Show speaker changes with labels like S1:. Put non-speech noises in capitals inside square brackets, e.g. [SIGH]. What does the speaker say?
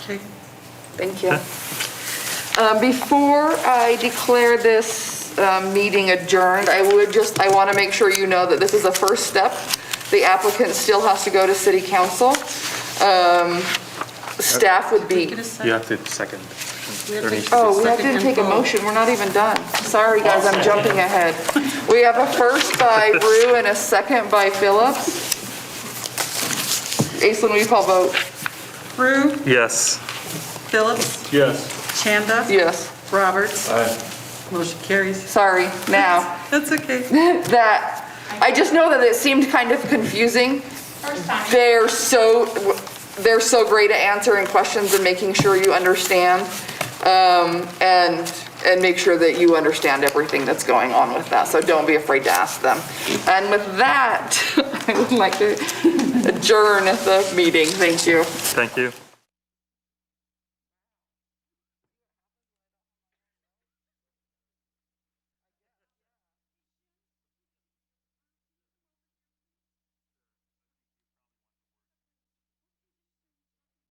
S1: Okay.
S2: Thank you. Um, Before I declare this um, meeting adjourned, I would just, I want to make sure you know that this is the first step. The applicant still has to go to city council. Um, Staff would be,
S1: Take it a sec.
S3: You have to second.
S1: We have
S3: There
S1: to-
S3: needs to be-
S2: oh, we
S1: Second
S2: didn't
S1: and
S2: take a
S1: vote.
S2: motion, we're not even done. Sorry, guys, I'm jumping ahead. We have a first by Rue and a second by Phillips. Aislinn, will you call vote?
S1: Rue,
S3: Yes.
S1: Phillips,
S3: Yes.
S1: Chanda.
S2: Yes,
S1: Roberts. Motion carries.
S2: sorry, now.
S1: That's okay.
S2: that, I just know that it seemed kind of confusing. They're so, they're so great at answering questions and making sure you understand, um, and, and make sure that you understand everything that's going on with that, so don't be afraid to ask them. And with [LAUGHS] that, I would like to adjourn the meeting, thank you.
S3: Thank you.